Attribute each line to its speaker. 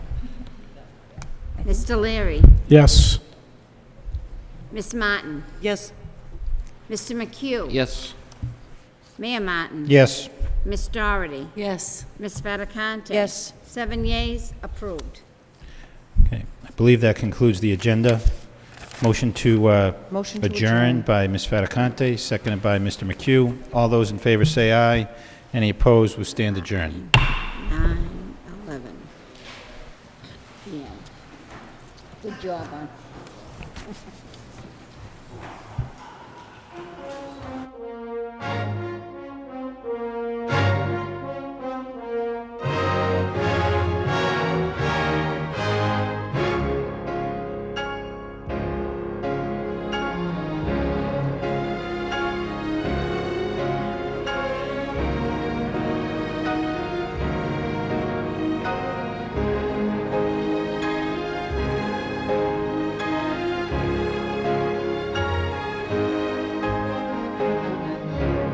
Speaker 1: Mr. Leary,
Speaker 2: Yes.
Speaker 1: Miss Martin,
Speaker 3: Yes.
Speaker 1: Mr. McHugh.
Speaker 4: Yes.
Speaker 1: Mayor Martin.
Speaker 2: Yes.
Speaker 1: Miss Dougherty,
Speaker 3: Yes.
Speaker 1: Miss Fattacante.
Speaker 3: Yes.
Speaker 1: Seven yeas, approved.
Speaker 2: Okay, I believe that concludes the agenda. Motion to uh,
Speaker 3: Motion to
Speaker 2: adjourn
Speaker 3: adjourn.
Speaker 2: by Ms. Fattacante, seconded by Mr. McHugh. All those in favor say aye. Any opposed, we stand adjourned.
Speaker 1: Nine, eleven. Yeah. Good job on.